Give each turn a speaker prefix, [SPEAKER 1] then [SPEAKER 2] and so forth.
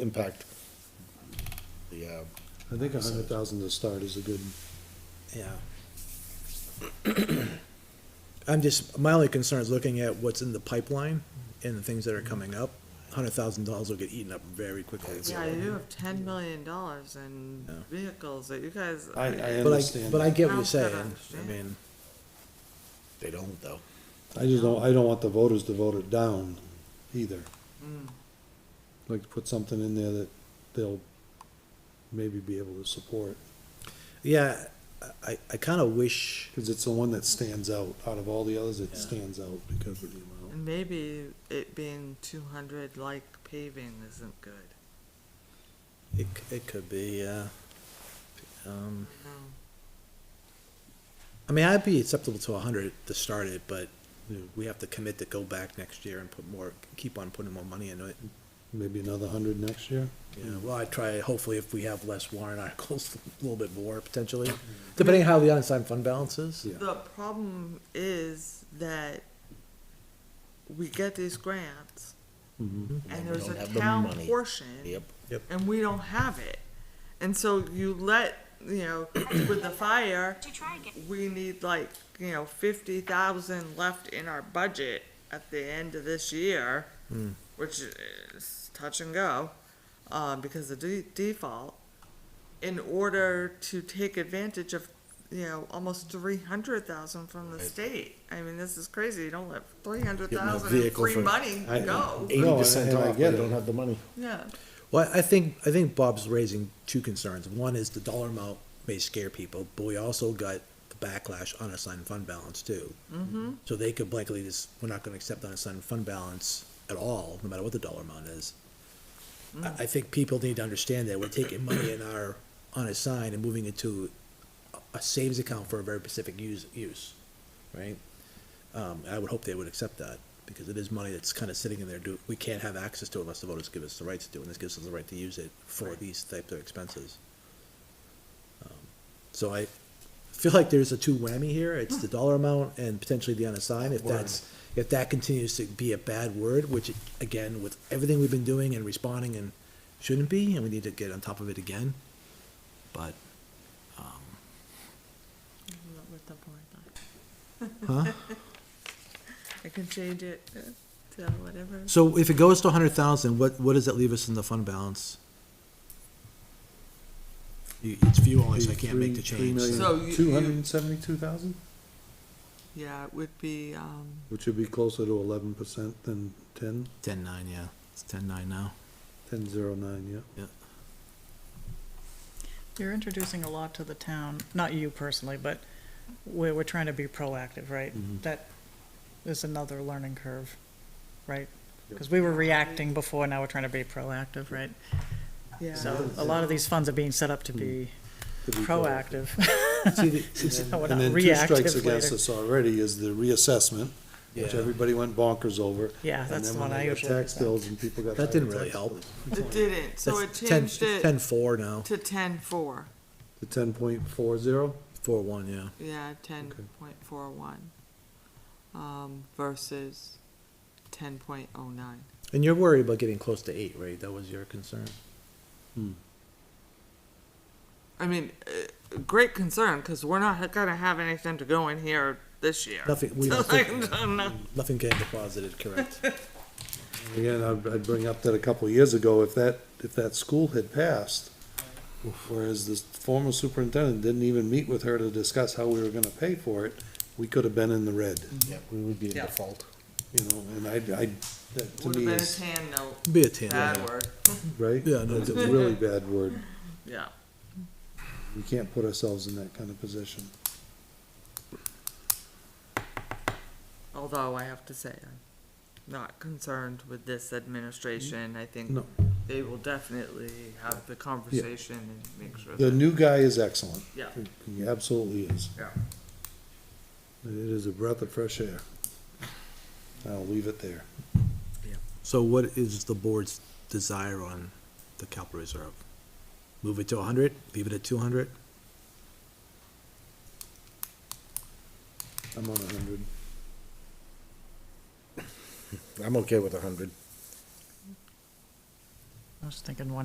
[SPEAKER 1] impact the, uh,
[SPEAKER 2] I think a hundred thousand to start is a good,
[SPEAKER 3] Yeah. I'm just, my only concern is looking at what's in the pipeline and the things that are coming up. Hundred thousand dollars will get eaten up very quickly.
[SPEAKER 4] Yeah, you have ten million dollars in
[SPEAKER 3] Yeah.
[SPEAKER 4] vehicles that you guys.
[SPEAKER 2] I, I
[SPEAKER 3] But I,
[SPEAKER 2] understand.
[SPEAKER 3] but I get what you're
[SPEAKER 4] Sounds good, I
[SPEAKER 3] saying. I
[SPEAKER 4] understand.
[SPEAKER 3] mean,
[SPEAKER 1] they don't though.
[SPEAKER 2] I just don't, I don't want the voters to vote it down either. Like to put something in there that they'll maybe be able to support,
[SPEAKER 3] yeah, I, I kinda wish,
[SPEAKER 2] cause it's the one that stands out, out of all the others, it stands out because of the amount.
[SPEAKER 4] And maybe it being two hundred like paving isn't good.
[SPEAKER 3] it, c- it could be, uh, um,
[SPEAKER 4] No.
[SPEAKER 3] I mean, I'd be acceptable to a hundred to start it, but we have to commit to go back next year and put more, keep on putting more money into it.
[SPEAKER 2] Maybe another hundred next year?
[SPEAKER 3] Yeah, well, I try, hopefully if we have less warrant articles, a little bit more potentially, depending on how the unassigned fund balance is.
[SPEAKER 2] Yeah.
[SPEAKER 4] The problem is that we get these grants
[SPEAKER 2] Mhm.
[SPEAKER 4] and
[SPEAKER 1] we
[SPEAKER 4] there's
[SPEAKER 1] don't
[SPEAKER 4] a
[SPEAKER 1] have the
[SPEAKER 4] town
[SPEAKER 1] money.
[SPEAKER 4] portion.
[SPEAKER 1] Yep.
[SPEAKER 4] And we don't have it. And so you let, you know, with the fire,
[SPEAKER 5] to try again.
[SPEAKER 4] we need like, you know, fifty thousand left in our budget at the end of this year,
[SPEAKER 1] Hmm.
[SPEAKER 4] which is touch and go, um, because of de- default, in order to take advantage of, you know, almost three hundred thousand from the state. I mean, this is crazy. You don't let three hundred thousand in
[SPEAKER 1] vehicle
[SPEAKER 4] free
[SPEAKER 1] for-
[SPEAKER 4] money
[SPEAKER 2] I-
[SPEAKER 4] go.
[SPEAKER 1] Eighty percent
[SPEAKER 2] and I
[SPEAKER 1] off,
[SPEAKER 2] get
[SPEAKER 1] they
[SPEAKER 2] it.
[SPEAKER 1] don't have the money.
[SPEAKER 4] Yeah.
[SPEAKER 3] Well, I think, I think Bob's raising two concerns. One is the dollar amount may scare people, but we also got the backlash unassigned fund balance too. Mm-hmm. So they could blankly just, we're not gonna accept unassigned fund balance at all, no matter what the dollar amount is. I, I think people need to understand that we're taking money in our unassigned and moving it to a- a savings account for a very specific use, use, right? Um, I would hope they would accept that, because it is money that's kind of sitting in there, do, we can't have access to it unless the voters give us the right to do, it, and this gives us the right to use it for these types of expenses. Um, So I feel like there's a two whammy here, it's the dollar amount and potentially the unassigned, if that's, if that continues to be a bad word, which, again, with everything we've been doing and responding and shouldn't be, and we need to get on top of it again, but, um,
[SPEAKER 4] With the board,
[SPEAKER 3] huh?
[SPEAKER 4] I can change it uh, to whatever.
[SPEAKER 3] So if it goes to a hundred thousand, what, what does that leave us in the fund balance? You- It's view only, so I can't make the change.
[SPEAKER 4] So you-
[SPEAKER 2] Two hundred and seventy-two thousand,
[SPEAKER 4] Yeah, it would be, um,
[SPEAKER 2] which would be closer to eleven percent than ten,
[SPEAKER 3] Ten nine, yeah, it's ten nine now.
[SPEAKER 2] ten zero nine, yeah.
[SPEAKER 6] You're introducing a lot to the town, not you personally, but we're, we're trying to be proactive, right?
[SPEAKER 2] Mhm.
[SPEAKER 6] That is another learning curve, right?
[SPEAKER 2] Yep.
[SPEAKER 6] Because we were reacting before, now we're trying to be proactive, right?
[SPEAKER 4] yeah.
[SPEAKER 6] So a lot of these funds are being set up to be
[SPEAKER 2] Could be better.
[SPEAKER 6] proactive.
[SPEAKER 2] See, the-
[SPEAKER 6] So
[SPEAKER 2] Mm-hmm.
[SPEAKER 6] we're
[SPEAKER 2] And
[SPEAKER 6] not
[SPEAKER 2] then two strikes
[SPEAKER 6] reactive
[SPEAKER 2] against
[SPEAKER 6] later.
[SPEAKER 2] us already is the reassessment, which
[SPEAKER 3] Yeah.
[SPEAKER 2] everybody went bonkers over.
[SPEAKER 6] Yeah,
[SPEAKER 2] And
[SPEAKER 6] Ah, that's
[SPEAKER 2] then
[SPEAKER 6] the
[SPEAKER 2] when
[SPEAKER 6] one I
[SPEAKER 2] they got
[SPEAKER 6] usually
[SPEAKER 2] Tax
[SPEAKER 6] present.
[SPEAKER 2] bills and people got.
[SPEAKER 3] That didn't
[SPEAKER 2] higher
[SPEAKER 3] really
[SPEAKER 2] tax
[SPEAKER 3] help.
[SPEAKER 2] bills.
[SPEAKER 4] It didn't, so it
[SPEAKER 3] That's 10
[SPEAKER 4] changed it
[SPEAKER 3] Ten four now,
[SPEAKER 4] to ten four,
[SPEAKER 2] The ten point four zero,
[SPEAKER 3] four one, yeah.
[SPEAKER 4] yeah, ten point four one. Um, versus ten point oh nine.
[SPEAKER 3] And you're worried about getting close to eight, right? That was your concern?
[SPEAKER 4] I mean, uh, great concern, cause we're not gonna have anything to go in here this year.
[SPEAKER 3] Nothing, we
[SPEAKER 4] So,
[SPEAKER 3] don't
[SPEAKER 4] like,
[SPEAKER 3] think-
[SPEAKER 4] I'm not-
[SPEAKER 3] nothing getting deposited, correct?
[SPEAKER 2] again, I'd, I'd bring up that a couple of years ago, if that, if that school had passed, whereas the former superintendent didn't even meet with her to discuss how we were gonna pay for it, we could have been in the red,
[SPEAKER 3] Mm-hmm.
[SPEAKER 1] Yeah, we would be in
[SPEAKER 4] Yeah.
[SPEAKER 1] default.
[SPEAKER 2] you know, and I, I, that to
[SPEAKER 4] Would've
[SPEAKER 2] me
[SPEAKER 4] been a
[SPEAKER 2] is,
[SPEAKER 4] tan note,
[SPEAKER 3] Be a ten.
[SPEAKER 4] bad
[SPEAKER 3] yeah.
[SPEAKER 4] word,
[SPEAKER 2] right?
[SPEAKER 3] Yeah, no,
[SPEAKER 2] That's a really bad word.
[SPEAKER 4] yeah.
[SPEAKER 2] We can't put ourselves in that kind of position.
[SPEAKER 4] Although I have to say, I'm not concerned with this administration, I think
[SPEAKER 2] No.
[SPEAKER 4] they will definitely have the conversation and make sure
[SPEAKER 2] The
[SPEAKER 4] that,
[SPEAKER 2] new guy is excellent.
[SPEAKER 4] yeah,
[SPEAKER 2] He absolutely is.
[SPEAKER 4] yeah.
[SPEAKER 2] It is a breath of fresh air. I'll leave it there.
[SPEAKER 3] So what is the board's desire on the capital reserve? Move it to a hundred, leave it at two hundred?
[SPEAKER 2] I'm on a hundred.
[SPEAKER 1] I'm okay with a hundred.
[SPEAKER 6] I was thinking one